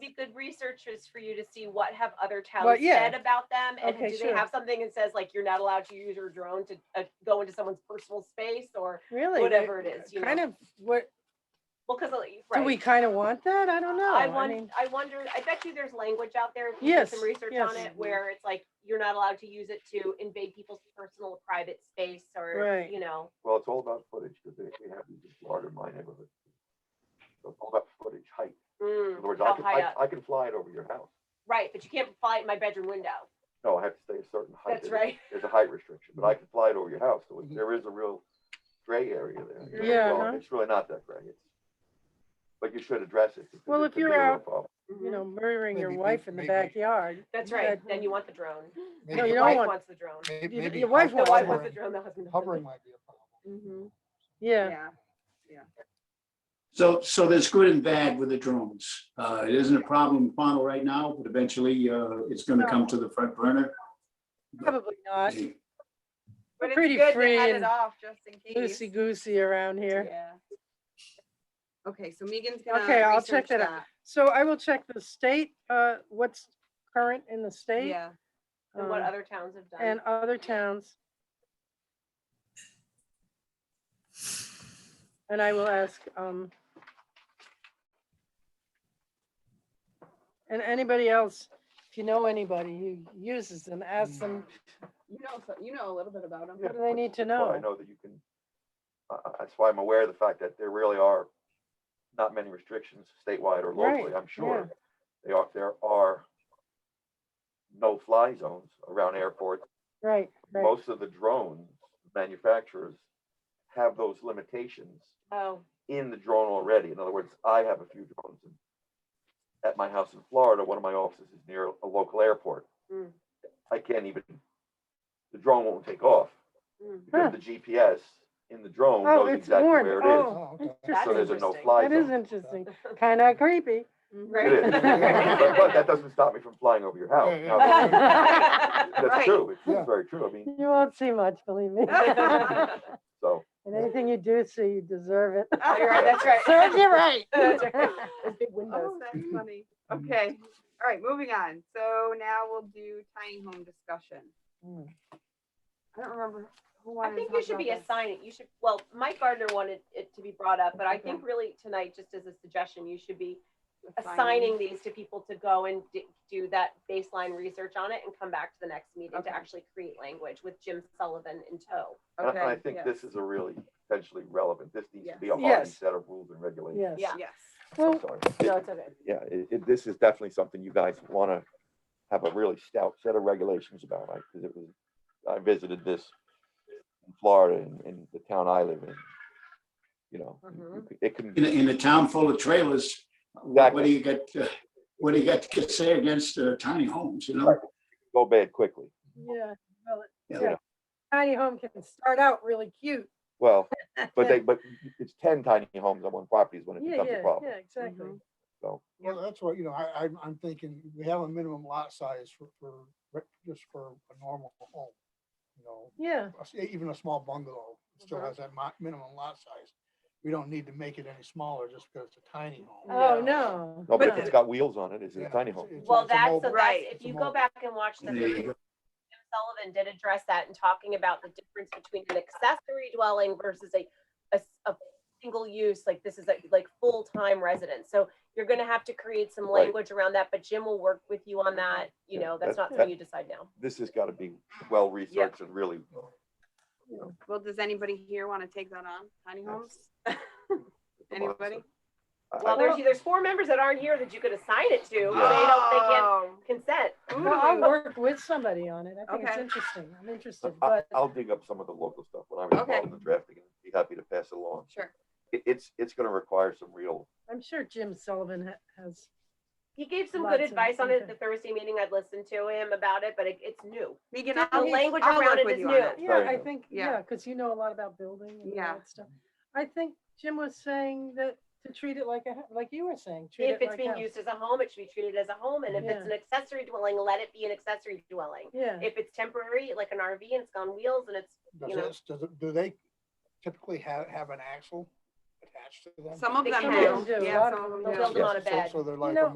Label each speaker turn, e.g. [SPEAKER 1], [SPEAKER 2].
[SPEAKER 1] be good research is for you to see what have other towns
[SPEAKER 2] Well, yeah.
[SPEAKER 1] said about them, and
[SPEAKER 2] Okay,
[SPEAKER 1] do
[SPEAKER 2] sure.
[SPEAKER 1] they have something that says like you're not allowed to use your drone to uh, go into someone's personal space or
[SPEAKER 2] Really?
[SPEAKER 1] whatever it is, you
[SPEAKER 2] Kind
[SPEAKER 1] know.
[SPEAKER 2] of, what,
[SPEAKER 1] well, because
[SPEAKER 2] do
[SPEAKER 1] right.
[SPEAKER 2] we kind of want that? I don't know.
[SPEAKER 1] I
[SPEAKER 2] mean,
[SPEAKER 1] wonder, I wonder, I bet you there's language out there, if you do
[SPEAKER 2] Yes,
[SPEAKER 1] some research
[SPEAKER 2] yes.
[SPEAKER 1] on it, where it's like, you're not allowed to use it to invade people's personal private space or,
[SPEAKER 2] Right.
[SPEAKER 1] you know,
[SPEAKER 3] Well, it's all about footage, because they, they have these larger in my neighborhood. So It's all about footage, height. In
[SPEAKER 1] mm,
[SPEAKER 3] other words, I
[SPEAKER 1] how
[SPEAKER 3] can,
[SPEAKER 1] high
[SPEAKER 3] I,
[SPEAKER 1] up.
[SPEAKER 3] I can fly it over your house.
[SPEAKER 1] Right, but you can't fly it in my bedroom window.
[SPEAKER 3] No, I have to stay a certain height.
[SPEAKER 1] That's
[SPEAKER 3] There's-
[SPEAKER 1] right.
[SPEAKER 3] There's a height restriction, but I can fly it over your house, so there is a real gray area there. you know, as
[SPEAKER 2] Yeah,
[SPEAKER 3] well.
[SPEAKER 2] uh-huh.
[SPEAKER 3] It's really not that gray, it's, but you should address it. because
[SPEAKER 2] Well,
[SPEAKER 3] it
[SPEAKER 2] if
[SPEAKER 3] could be a
[SPEAKER 2] you're
[SPEAKER 3] real
[SPEAKER 2] out-
[SPEAKER 3] problem.
[SPEAKER 2] You
[SPEAKER 1] Mhm.
[SPEAKER 2] know, murdering your
[SPEAKER 4] Maybe we-
[SPEAKER 2] wife in the
[SPEAKER 4] maybe-
[SPEAKER 2] backyard.
[SPEAKER 1] That's
[SPEAKER 2] you
[SPEAKER 1] right,
[SPEAKER 2] had-
[SPEAKER 1] then you want the drone.
[SPEAKER 2] No,
[SPEAKER 4] Maybe
[SPEAKER 2] you
[SPEAKER 1] Your
[SPEAKER 2] don't
[SPEAKER 1] wife
[SPEAKER 2] want-
[SPEAKER 1] wants the drone.
[SPEAKER 4] may-
[SPEAKER 2] you-
[SPEAKER 4] maybe
[SPEAKER 2] your wife
[SPEAKER 1] The
[SPEAKER 2] wants
[SPEAKER 1] wife
[SPEAKER 2] it.
[SPEAKER 1] wants the
[SPEAKER 4] hovering-
[SPEAKER 1] drone, the husband. doesn't.
[SPEAKER 4] Hovering might be a problem.
[SPEAKER 1] Mhm.
[SPEAKER 2] Yeah,
[SPEAKER 5] Yeah,
[SPEAKER 6] So, so there's good and bad with the drones. Uh, it isn't a problem in Pownell right now, but eventually, uh, it's gonna come to the front burner.
[SPEAKER 2] probably not.
[SPEAKER 5] but it's
[SPEAKER 2] pretty
[SPEAKER 5] good
[SPEAKER 2] free
[SPEAKER 5] to head
[SPEAKER 2] and
[SPEAKER 5] it off just in case.
[SPEAKER 2] Loosey goosey around here.
[SPEAKER 5] Yeah. Okay, so Megan's gonna.
[SPEAKER 2] Okay, I'll check
[SPEAKER 5] research
[SPEAKER 2] that out. So I will check the state, uh, what's current in the
[SPEAKER 5] that.
[SPEAKER 2] state.
[SPEAKER 5] Yeah,
[SPEAKER 1] And what
[SPEAKER 2] um,
[SPEAKER 1] other towns have
[SPEAKER 2] And
[SPEAKER 1] done.
[SPEAKER 2] other towns. And I will ask, um, and anybody else, if you know anybody who uses them, ask them,
[SPEAKER 5] you know, so- you know a little bit about them.
[SPEAKER 3] Yeah,
[SPEAKER 2] do they
[SPEAKER 3] but
[SPEAKER 2] need to
[SPEAKER 3] that's why I
[SPEAKER 2] know?
[SPEAKER 3] know that you can, I- I- that's why I'm aware of the fact that there really are not many restrictions statewide or
[SPEAKER 2] Right,
[SPEAKER 3] locally, I'm sure. They are, there are no-fly zones around airports.
[SPEAKER 2] right, right,
[SPEAKER 3] Most of the drone manufacturers have those limitations
[SPEAKER 1] Oh,
[SPEAKER 3] in the drone already. In other words, I have a few drones. in- At my house in Florida, one of my offices is near a local airport.
[SPEAKER 2] Hmm.
[SPEAKER 1] Mm.
[SPEAKER 3] I can't even, the drone won't take off
[SPEAKER 1] Mm.
[SPEAKER 2] Huh.
[SPEAKER 3] because the GPS in the drone
[SPEAKER 2] Oh,
[SPEAKER 3] knows
[SPEAKER 2] it's
[SPEAKER 3] exactly
[SPEAKER 2] warned.
[SPEAKER 3] where it is.
[SPEAKER 2] Oh,
[SPEAKER 4] Oh, okay.
[SPEAKER 2] interesting.
[SPEAKER 3] So there's a
[SPEAKER 1] interesting.
[SPEAKER 3] no-fly
[SPEAKER 2] That is
[SPEAKER 3] zone.
[SPEAKER 2] interesting. Kind of creepy.
[SPEAKER 3] It is. But but that doesn't stop me from flying over your house.
[SPEAKER 4] Yeah,
[SPEAKER 3] Now,
[SPEAKER 4] yeah.
[SPEAKER 3] that's- That's
[SPEAKER 1] Right.
[SPEAKER 3] true. It's-
[SPEAKER 4] Yeah.
[SPEAKER 3] It's very true. I mean,
[SPEAKER 2] You won't see much, believe me.
[SPEAKER 5] Oh,
[SPEAKER 3] so,
[SPEAKER 2] And anything you do see, you deserve it.
[SPEAKER 1] Oh, You're right, that's right.
[SPEAKER 2] Serves you right.
[SPEAKER 1] That's right. Those big windows.
[SPEAKER 5] Oh, that's funny. Okay, all right, moving on. So now we'll do tiny home discussion.
[SPEAKER 2] Mm.
[SPEAKER 5] I don't remember who
[SPEAKER 1] I
[SPEAKER 5] wanted to
[SPEAKER 1] think you
[SPEAKER 5] talk
[SPEAKER 1] should
[SPEAKER 5] about
[SPEAKER 1] be
[SPEAKER 5] this.
[SPEAKER 1] assigning, you should, well, Mike Gardner wanted it to be brought up, but I
[SPEAKER 5] Okay.
[SPEAKER 1] think really tonight, just as a suggestion, you should be
[SPEAKER 5] Assigning.
[SPEAKER 1] assigning these to people to go and d- do that baseline research on it and come back to the next meeting
[SPEAKER 5] Okay.
[SPEAKER 1] to actually create language with Jim Sullivan in tow.
[SPEAKER 3] and I- and I
[SPEAKER 5] Okay,
[SPEAKER 3] think
[SPEAKER 5] yeah,
[SPEAKER 3] this is a really potentially relevant, this needs to
[SPEAKER 5] Yes.
[SPEAKER 3] be a hard
[SPEAKER 2] Yes.
[SPEAKER 3] set of rules and regulations.
[SPEAKER 2] Oh, Yes.
[SPEAKER 1] Yeah.
[SPEAKER 5] Yes.
[SPEAKER 2] Well,
[SPEAKER 3] Sorry.
[SPEAKER 1] No, it's okay.
[SPEAKER 3] Yeah, it, it, this is definitely something you guys want to have a really stout set of regulations about, like, because it was, I visited this in Florida in, in the town I live in. You know, you- you c- it can
[SPEAKER 6] In,
[SPEAKER 3] be
[SPEAKER 6] a- in a town full of trailers, what do
[SPEAKER 3] exactly
[SPEAKER 6] you get, uh, what do you got to say against uh, tiny homes, you know?
[SPEAKER 3] Right. go bad quickly.
[SPEAKER 2] yeah, well,
[SPEAKER 6] Yeah.
[SPEAKER 2] yeah. Tiny home can start out really cute.
[SPEAKER 3] Well, but they, but it's ten tiny homes on one property is when it
[SPEAKER 2] Yeah,
[SPEAKER 3] becomes
[SPEAKER 2] yeah,
[SPEAKER 3] a problem.
[SPEAKER 2] yeah, exactly.
[SPEAKER 5] Mhm.
[SPEAKER 4] Well, that's what, you know, I, I'm, I'm thinking, we have a minimum lot size for, for, re- just for a normal home. You know,
[SPEAKER 2] Yeah,
[SPEAKER 4] a s- even a small bungalow still
[SPEAKER 5] Mhm.
[SPEAKER 4] has that mi- minimum lot size. We don't need to make it any smaller just because it's a tiny home.
[SPEAKER 2] oh,
[SPEAKER 5] Yeah.
[SPEAKER 2] no.
[SPEAKER 3] No, but if
[SPEAKER 2] no.
[SPEAKER 3] it's got wheels on it, it's
[SPEAKER 4] Yeah,
[SPEAKER 3] a tiny
[SPEAKER 4] it's-
[SPEAKER 3] home.
[SPEAKER 4] it's a-
[SPEAKER 1] Well,
[SPEAKER 4] it's a
[SPEAKER 1] that's, so
[SPEAKER 4] mobile-
[SPEAKER 1] that's,
[SPEAKER 5] Right.
[SPEAKER 1] if
[SPEAKER 4] it's a
[SPEAKER 1] you go
[SPEAKER 4] mobile-
[SPEAKER 1] back and watch the
[SPEAKER 6] There you
[SPEAKER 1] Jim Sullivan did address that and talking about the difference between an accessory dwelling versus a, a, s- a single use, like this is a, like full-time residence. So you're gonna have to create some
[SPEAKER 3] Right.
[SPEAKER 1] language around that, but Jim will work with you on that, you
[SPEAKER 3] Yeah,
[SPEAKER 1] know, that's
[SPEAKER 3] that-
[SPEAKER 1] not something you decide now.
[SPEAKER 3] This has got to be well researched and really,
[SPEAKER 5] Well, does anybody here want to take that on, tiny homes? Anybody?
[SPEAKER 3] I- I-
[SPEAKER 1] Well, there's, there's four members that aren't here that you could assign it to, they don't, they can't
[SPEAKER 5] Oh,
[SPEAKER 1] consent.
[SPEAKER 2] Well, I'll
[SPEAKER 5] ooh.
[SPEAKER 2] work with somebody on it. I think it's
[SPEAKER 5] Okay.
[SPEAKER 2] interesting. I'm interested,
[SPEAKER 3] I-
[SPEAKER 2] but
[SPEAKER 3] I'll dig up some of the local stuff when I was
[SPEAKER 5] Okay.
[SPEAKER 3] involved in the drafting, and be happy to pass it along.
[SPEAKER 5] Sure.
[SPEAKER 3] It, it's, it's gonna require some real,
[SPEAKER 2] I'm sure Jim Sullivan ha- has,
[SPEAKER 1] He gave some
[SPEAKER 2] Lots
[SPEAKER 1] good
[SPEAKER 2] of
[SPEAKER 1] advice on it at the
[SPEAKER 2] input.
[SPEAKER 1] Thursday meeting, I'd listened to him about it, but it, it's new.
[SPEAKER 5] Megan,
[SPEAKER 2] The
[SPEAKER 5] I'll,
[SPEAKER 1] language
[SPEAKER 5] I'll
[SPEAKER 1] around
[SPEAKER 5] work
[SPEAKER 1] it
[SPEAKER 5] with
[SPEAKER 1] is
[SPEAKER 5] you
[SPEAKER 1] new.
[SPEAKER 5] on it.
[SPEAKER 2] yeah,
[SPEAKER 3] Very
[SPEAKER 2] I
[SPEAKER 3] good.
[SPEAKER 2] think,
[SPEAKER 5] Yeah.
[SPEAKER 2] yeah, because you know a lot about building and all
[SPEAKER 5] Yeah.
[SPEAKER 2] that stuff. I think Jim was saying that to treat it like a, ho- like you were saying, treat
[SPEAKER 1] If
[SPEAKER 2] it
[SPEAKER 1] it's
[SPEAKER 2] like
[SPEAKER 1] being
[SPEAKER 2] house.
[SPEAKER 1] used as a home, it should be treated as a home, and if it's an
[SPEAKER 2] Yeah.
[SPEAKER 1] accessory dwelling, let it be an accessory dwelling.
[SPEAKER 2] Yeah,
[SPEAKER 1] If it's temporary, like an RV and it's on wheels and it's, you
[SPEAKER 4] Does
[SPEAKER 1] know.
[SPEAKER 4] this, does it, do they typically have, have an axle attached to them?
[SPEAKER 5] Some of
[SPEAKER 1] They
[SPEAKER 5] them
[SPEAKER 1] can.
[SPEAKER 5] do,
[SPEAKER 2] A
[SPEAKER 5] yeah,
[SPEAKER 2] lot
[SPEAKER 5] some
[SPEAKER 2] of
[SPEAKER 5] of
[SPEAKER 2] them
[SPEAKER 5] them
[SPEAKER 2] do.
[SPEAKER 5] do.
[SPEAKER 1] Build them
[SPEAKER 3] Yeah.
[SPEAKER 1] on a
[SPEAKER 4] So-
[SPEAKER 1] bed.
[SPEAKER 4] So they're like
[SPEAKER 2] know,
[SPEAKER 4] a